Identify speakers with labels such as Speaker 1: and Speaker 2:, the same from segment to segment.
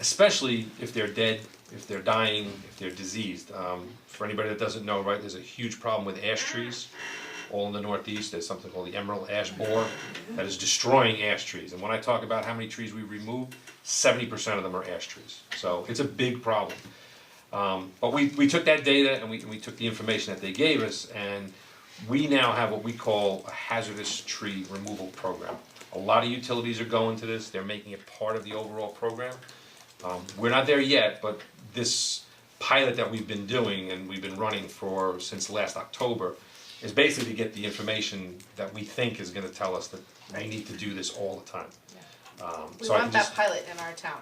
Speaker 1: especially if they're dead, if they're dying, if they're diseased. Um, for anybody that doesn't know, right, there's a huge problem with ash trees. All in the Northeast, there's something called the emerald ash borer that is destroying ash trees. And when I talk about how many trees we remove, 70% of them are ash trees. So it's a big problem. Um, but we, we took that data and we, we took the information that they gave us, and we now have what we call a hazardous tree removal program. A lot of utilities are going to this, they're making it part of the overall program. Um, we're not there yet, but this pilot that we've been doing and we've been running for since last October is basically to get the information that we think is gonna tell us that we need to do this all the time. Um,
Speaker 2: We
Speaker 1: so I
Speaker 2: want
Speaker 1: can
Speaker 2: that
Speaker 1: just,
Speaker 2: pilot in our town.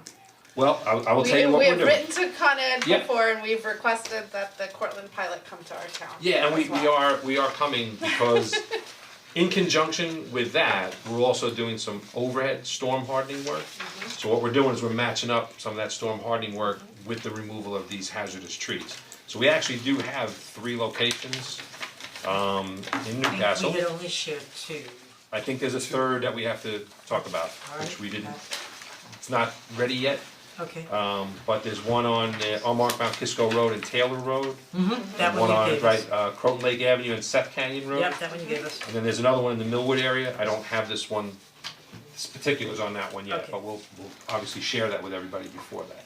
Speaker 1: well, I, I will
Speaker 2: We,
Speaker 1: tell you what
Speaker 2: we
Speaker 1: we're doing.
Speaker 2: have written to Con Ed
Speaker 1: Yeah.
Speaker 2: before and we've requested that the Cortland pilot come to our town.
Speaker 1: Yeah, and we,
Speaker 2: as
Speaker 1: we
Speaker 2: well.
Speaker 1: are, we are coming because in conjunction with that, we're also doing some overhead storm hardening work. So what we're doing is we're matching up some of that storm hardening work with the removal of these hazardous trees. So we actually do have three locations, um, in Newcastle.
Speaker 3: We had only shared two.
Speaker 1: I think there's a third that we have to talk about, which
Speaker 3: Alright,
Speaker 1: we didn't, it's not ready yet.
Speaker 3: Okay,
Speaker 1: Um, but there's one on, uh, on Mark Mount Kisco Road and Taylor Road.
Speaker 3: Mm-hmm. that one
Speaker 1: One
Speaker 3: you
Speaker 1: on,
Speaker 3: gave us.
Speaker 1: right, uh, Croton Lake Avenue and Seth Canyon Road.
Speaker 3: Yep, that one you gave us.
Speaker 1: And then there's another one in the Millwood area, I don't have this one, s- particulars on that one yet,
Speaker 3: Okay.
Speaker 1: but we'll, we'll obviously share that with everybody before that.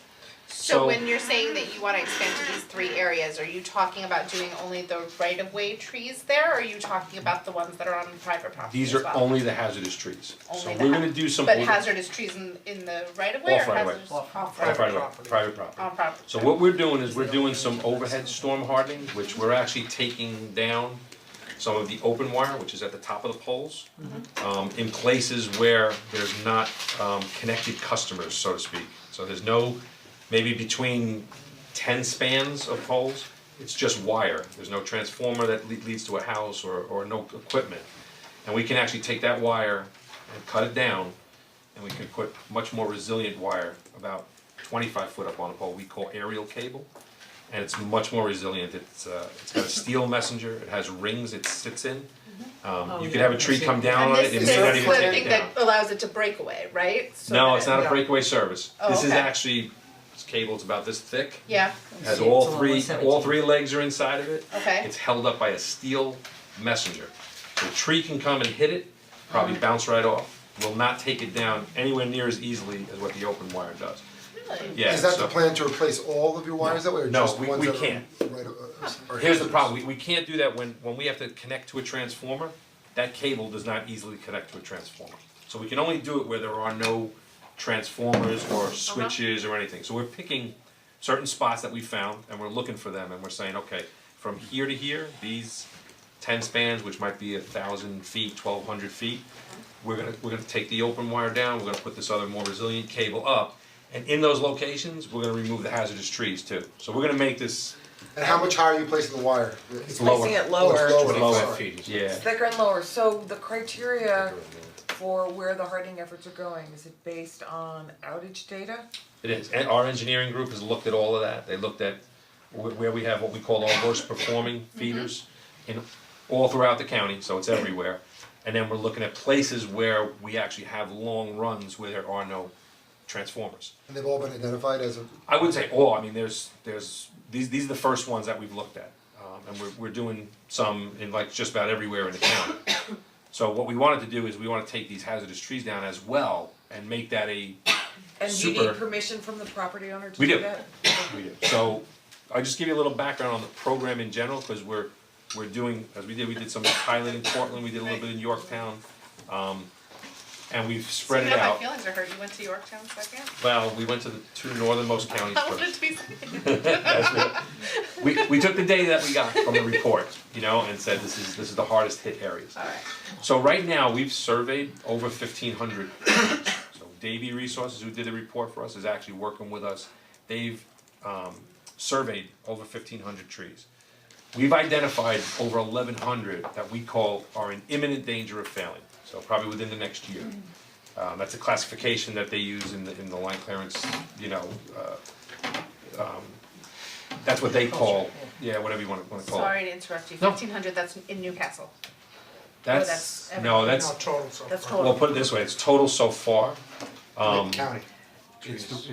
Speaker 2: So when you're saying that you wanna expand to these three areas, are you talking about doing only the right of way trees there or are you talking about the ones that are on private property
Speaker 1: These
Speaker 2: as
Speaker 1: are
Speaker 2: well?
Speaker 1: only the hazardous trees, so
Speaker 2: Only the
Speaker 1: we're
Speaker 2: ha-
Speaker 1: gonna do some.
Speaker 2: But
Speaker 1: over-
Speaker 2: hazardous trees in in the right of way or
Speaker 1: Off right of way.
Speaker 2: hazardous
Speaker 3: Off-
Speaker 2: off
Speaker 1: private
Speaker 2: right of way?
Speaker 1: property, private property.
Speaker 2: On property.
Speaker 1: So what we're doing is we're doing some overhead storm hardening, which we're actually taking down some of the open wire, which is at the top of the poles. Um, in places where there's not um connected customers, so to speak, so there's no, maybe between ten spans of poles. It's just wire, there's no transformer that le- leads to a house or or no equipment. And we can actually take that wire and cut it down and we can put much more resilient wire, about twenty-five foot up on a pole, we call aerial cable. And it's much more resilient, it's uh, it's got a steel messenger, it has rings it sits in. Um,
Speaker 3: Oh,
Speaker 1: you could
Speaker 3: yeah,
Speaker 1: have a
Speaker 3: I
Speaker 1: tree
Speaker 3: see.
Speaker 1: come down
Speaker 2: And
Speaker 1: on
Speaker 2: this
Speaker 1: it, it may not
Speaker 2: this is
Speaker 1: even
Speaker 2: the
Speaker 1: take
Speaker 2: thing
Speaker 1: it down.
Speaker 2: that allows it to break away, right? So
Speaker 1: No,
Speaker 2: that
Speaker 1: it's
Speaker 2: it-
Speaker 1: not a breakaway service,
Speaker 2: Oh,
Speaker 1: this is
Speaker 2: okay.
Speaker 1: actually, this cable's about this thick,
Speaker 2: Yeah,
Speaker 1: has
Speaker 3: See,
Speaker 1: all
Speaker 3: it's a
Speaker 1: three, all
Speaker 3: 117.
Speaker 1: three legs are inside of it.
Speaker 2: Okay.
Speaker 1: It's held up by a steel messenger. The tree can come and hit it, probably
Speaker 2: Uh-huh.
Speaker 1: bounce right off. Will not take it down anywhere near as easily as what the open wire does.
Speaker 2: really?
Speaker 1: Yeah,
Speaker 4: Is that
Speaker 1: so-
Speaker 4: the plan to replace all of your wires that way, or
Speaker 1: No,
Speaker 4: just
Speaker 1: we-
Speaker 4: the ones
Speaker 1: we
Speaker 4: that are?
Speaker 1: can't.
Speaker 4: Right, uh, uh, or
Speaker 1: Here's the
Speaker 4: hazardous?
Speaker 1: problem, we, we can't do that when, when we have to connect to a transformer, that cable does not easily connect to a transformer. So we can only do it where there are no transformers or switches or anything, so we're picking certain spots that we found and we're looking for them and we're saying, okay, from here to here, these ten spans, which might be a thousand feet, twelve hundred feet, we're gonna, we're gonna take the open wire down, we're gonna put this other more resilient cable up, and in those locations, we're gonna remove the hazardous trees too, so we're gonna make this
Speaker 4: And how much higher are you placing the wire?
Speaker 1: It's lower.
Speaker 5: Placing it
Speaker 4: Oh,
Speaker 5: lower.
Speaker 4: it's lower.
Speaker 1: Lower.
Speaker 4: Sorry.
Speaker 1: Yeah.
Speaker 5: Thicker and lower, so the criteria for where the hardening efforts are going, is it based on outage data?
Speaker 1: It is, and our engineering group has looked at all of that, they looked at wh- where we have what we call our worst performing feeders in, all throughout the county, so it's everywhere. And then we're looking at places where we actually have long runs where there are no transformers.
Speaker 4: And they've all been identified as a,
Speaker 1: I wouldn't say all, I mean, there's, there's, these, these are the first ones that we've looked at. Um, and we're, we're doing some in like just about everywhere in the county. So what we wanted to do is we wanna take these hazardous trees down as well and make that a
Speaker 5: And do you
Speaker 1: Super.
Speaker 5: need permission from the property owner to
Speaker 1: We
Speaker 5: do
Speaker 1: do.
Speaker 5: that?
Speaker 1: We do. Oh, So I'll just give you a little background on the program in general, cause we're, we're doing, as we did, we did some pilot in Portland, we did a little bit in Yorktown. Um, and we've spread it
Speaker 2: You know, my
Speaker 1: out.
Speaker 2: feelings are hurt, you went to Yorktown second?
Speaker 1: Well, we went to the two northernmost counties
Speaker 2: I
Speaker 1: first.
Speaker 2: wanted to be second.
Speaker 1: We, we took the data that we got from the report, you know, and said this is, this is the hardest hit areas.
Speaker 2: Alright.
Speaker 1: So right now, we've surveyed over fifteen hundred. So Davy Resources, who did the report for us, is actually working with us. They've um surveyed over fifteen hundred trees. We've identified over eleven hundred that we call are in imminent danger of failing, so probably within the next year. Um, that's a classification that they use in the in the line clearance, you know, uh um that's what they call, yeah, whatever you wanna wanna call it.
Speaker 2: Sorry to interrupt you,
Speaker 1: No.
Speaker 2: fifteen hundred, that's in Newcastle.
Speaker 1: That's,
Speaker 2: that's
Speaker 1: no, that's,
Speaker 6: total so
Speaker 5: That's
Speaker 6: far.
Speaker 5: total.
Speaker 1: Well, put it this way, it's total so far. Um,
Speaker 4: county.
Speaker 1: it's the-